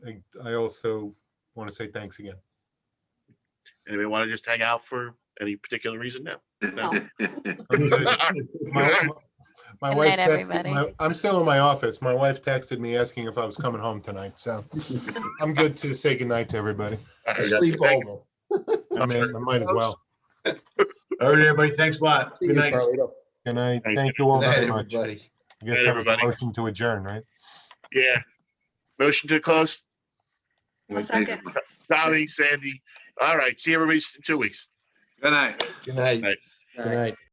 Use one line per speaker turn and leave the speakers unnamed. I also want to say thanks again.
Anybody want to just hang out for any particular reason? No. No.
I'm good. My- My
Good
wife
night,
texted,
everybody.
my- I'm still in my office. My wife texted me asking if I was coming home tonight, so I'm good to say goodnight to everybody.
Sleep over.
I mean, I might as well.
All right, everybody, thanks a lot.
See
Good
you,
night.
Carlito.
Good night.
Thanks.
Thank you all
Good night,
very much. I
everybody.
guess that was a
everybody.
motion to adjourn, right?
Yeah. Motion to close.
I'll second.
Dolly, Sandy. All right. See everybody in two weeks.
Good night.
Good night.
Night.
Good night.